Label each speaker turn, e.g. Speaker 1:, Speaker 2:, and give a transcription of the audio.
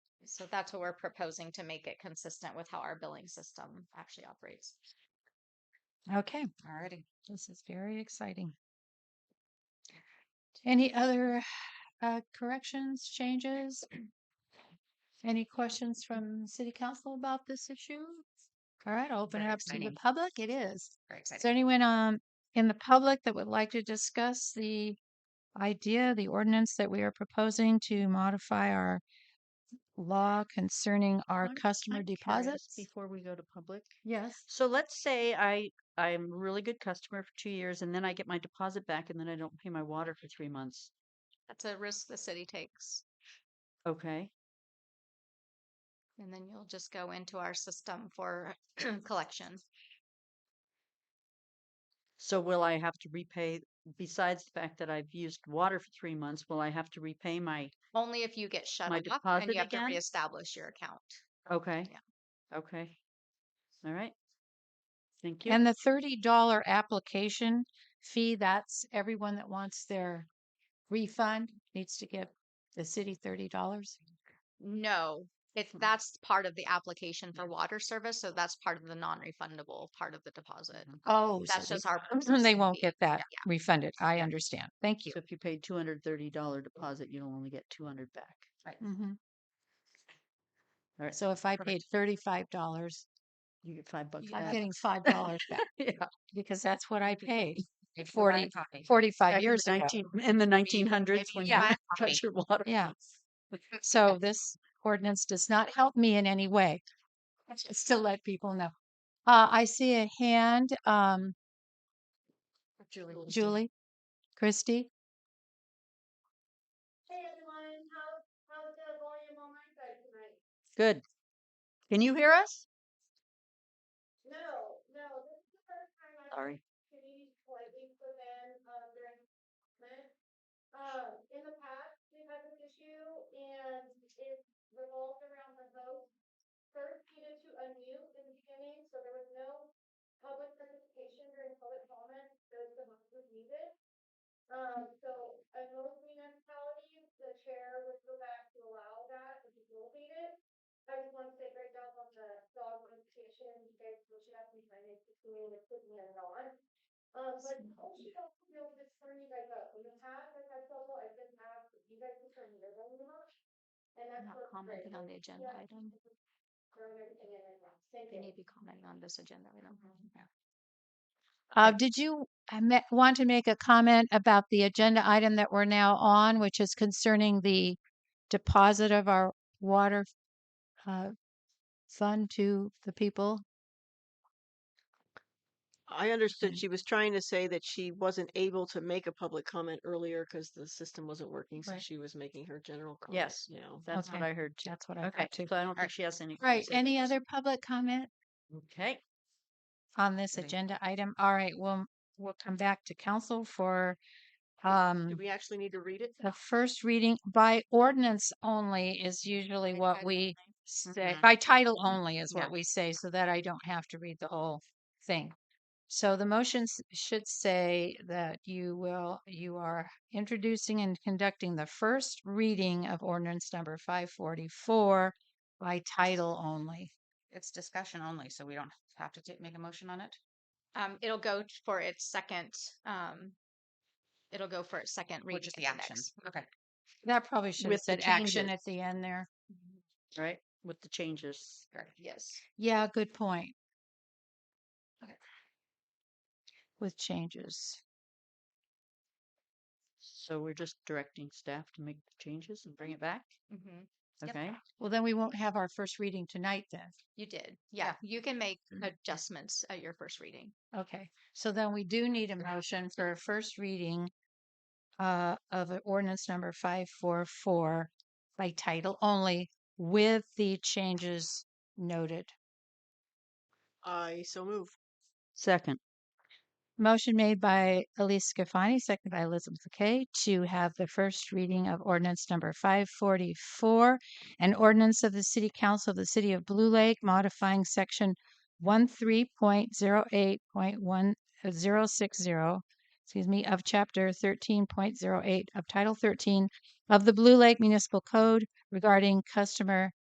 Speaker 1: So that's what we're proposing to make it consistent with how our billing system actually operates.
Speaker 2: Okay, alrighty. This is very exciting. Any other uh, corrections, changes? Any questions from city council about this issue? All right, I'll open it
Speaker 1: Very
Speaker 2: up to the
Speaker 1: exciting.
Speaker 2: public. It is.
Speaker 1: Very
Speaker 2: Is there
Speaker 1: exciting.
Speaker 2: anyone um in the public that would like to discuss the idea, the ordinance that we are proposing to modify our law concerning our
Speaker 3: I'm-
Speaker 2: customer
Speaker 3: I'm curious
Speaker 2: deposits?
Speaker 3: Before we go to public.
Speaker 2: Yes.
Speaker 3: So let's say I, I'm a really good customer for two years and then I get my deposit back and then I don't pay my water for three months.
Speaker 1: That's a risk the city takes.
Speaker 3: Okay,
Speaker 1: And then you'll just go into our system for collection.
Speaker 3: so will I have to repay, besides the fact that I've used water for three months, will I have to repay my,
Speaker 1: Only if you get shut
Speaker 3: My
Speaker 1: off and
Speaker 3: deposit
Speaker 1: you have to
Speaker 3: again?
Speaker 1: reestablish your account.
Speaker 3: okay?
Speaker 1: Yeah.
Speaker 3: Okay. All right. Thank you.
Speaker 2: And the thirty dollar application fee, that's everyone that wants their refund needs to give the city thirty dollars.
Speaker 1: No, it's
Speaker 3: Hmm.
Speaker 1: that's part of the application for water service, so that's part of the non-refundable part of the deposit.
Speaker 3: Mhm.
Speaker 2: Oh, so
Speaker 1: That's
Speaker 2: they-
Speaker 1: just our.
Speaker 2: They
Speaker 1: processing
Speaker 2: won't
Speaker 1: fee.
Speaker 2: get that
Speaker 1: Yeah.
Speaker 2: refunded. I understand. Thank you.
Speaker 3: So if you paid two hundred thirty dollar deposit, you'll only get two hundred back.
Speaker 2: Mhm.
Speaker 3: All right.
Speaker 2: So if I
Speaker 3: Perfect.
Speaker 2: paid thirty-five dollars,
Speaker 3: You get five bucks
Speaker 2: I'm
Speaker 3: back.
Speaker 2: getting five dollars back
Speaker 3: Yeah.
Speaker 2: because that's what I paid
Speaker 4: If you
Speaker 2: Forty-
Speaker 4: buy coffee.
Speaker 3: back in
Speaker 2: forty-five
Speaker 3: the
Speaker 2: years ago.
Speaker 3: 19 In the nineteen hundreds
Speaker 1: maybe
Speaker 3: when
Speaker 1: you
Speaker 3: you
Speaker 1: buy
Speaker 4: coffee.
Speaker 3: touch your water.
Speaker 2: Yeah. So this ordinance does not help me in any way. Just to let people know. Uh, I see a hand, um,
Speaker 4: Julie.
Speaker 2: Julie, Christy.
Speaker 5: Hey everyone, how, how's the volume on my side tonight?
Speaker 3: Good. Can you hear us?
Speaker 5: No, no, this is the first time I've
Speaker 3: Sorry.
Speaker 5: community slightly within, um, during development. Um, in the past, we've had this issue and it revolved around the host. First needed to unmute in the beginning, so there was no public participation during public comment, because the host was muted. Um, so in most municipalities, the chair would go back to allow that if you elevate it. I just want to say great job on the dog notification, you guys push it up and trying to continue with putting it on. Um, but also to be able to turn you guys up, in the past, I've had trouble, I didn't have, you guys can turn your volume up. And
Speaker 1: I'm
Speaker 5: that's
Speaker 1: Not
Speaker 5: what's great.
Speaker 1: commenting on the agenda
Speaker 5: Yeah.
Speaker 1: item.
Speaker 5: Throwing everything in and out. Thank
Speaker 1: You
Speaker 5: you.
Speaker 1: need to be commenting on this agenda item.
Speaker 2: Uh, did you uh, ma- want to make a comment about the agenda item that we're now on, which is concerning the deposit of our water uh, fund to the people?
Speaker 6: I understood she was trying to say that she wasn't able to make a public comment earlier because the system wasn't working, so
Speaker 2: Right.
Speaker 6: she was making her general comment.
Speaker 3: Yes.
Speaker 6: Now.
Speaker 3: That's what
Speaker 2: Okay.
Speaker 3: I heard too.
Speaker 2: That's what I
Speaker 3: Okay,
Speaker 2: thought too.
Speaker 3: so I don't think she has any.
Speaker 2: Right.
Speaker 3: questions.
Speaker 2: Any other public comment?
Speaker 3: Okay,
Speaker 2: on this
Speaker 4: Okay.
Speaker 2: agenda item. All right, we'll, we'll come back to council for
Speaker 6: Do
Speaker 2: um,
Speaker 6: we actually need to read it?
Speaker 2: the first reading by ordinance only is usually what we say,
Speaker 4: Mhm.
Speaker 2: by title only is
Speaker 4: Yeah.
Speaker 2: what we say, so that I don't have to read the whole thing. So the motions should say that you will, you are introducing and conducting the first reading of ordinance number five forty-four by title only.
Speaker 4: It's discussion only, so we don't have to ta- make a motion on it.
Speaker 1: Um, it'll go t- for its second, um, it'll go for its second reading.
Speaker 4: Which is the
Speaker 1: at
Speaker 4: action.
Speaker 1: next-
Speaker 4: Okay.
Speaker 2: That probably should have
Speaker 3: With
Speaker 2: said
Speaker 3: the
Speaker 2: action
Speaker 3: changes.
Speaker 2: at the end there.
Speaker 3: right, with the changes.
Speaker 1: Yes.
Speaker 2: Yeah, good point.
Speaker 4: Okay.
Speaker 2: With changes.
Speaker 3: So we're just directing staff to make the changes and bring it back,
Speaker 1: Mhm. Yep.
Speaker 3: okay?
Speaker 2: Well, then we won't have our first reading tonight then.
Speaker 1: You did. Yeah, you can make
Speaker 4: Mm-hmm.
Speaker 1: adjustments at your first reading.
Speaker 2: Okay. So then we do need a motion for a first reading uh, of a ordinance number 544 by title only with the changes noted.
Speaker 6: I so move.
Speaker 3: Second,
Speaker 2: Motion made by Elise Scafani, seconded by Elizabeth Kay, to have the first reading of ordinance number five forty-four, an ordinance of the City Council of the City of Blue Lake modifying section one point zero eight point one uh, zero six zero, excuse me, of chapter thirteen point zero eight of Title thirteen of the Blue Lake Municipal Code regarding customer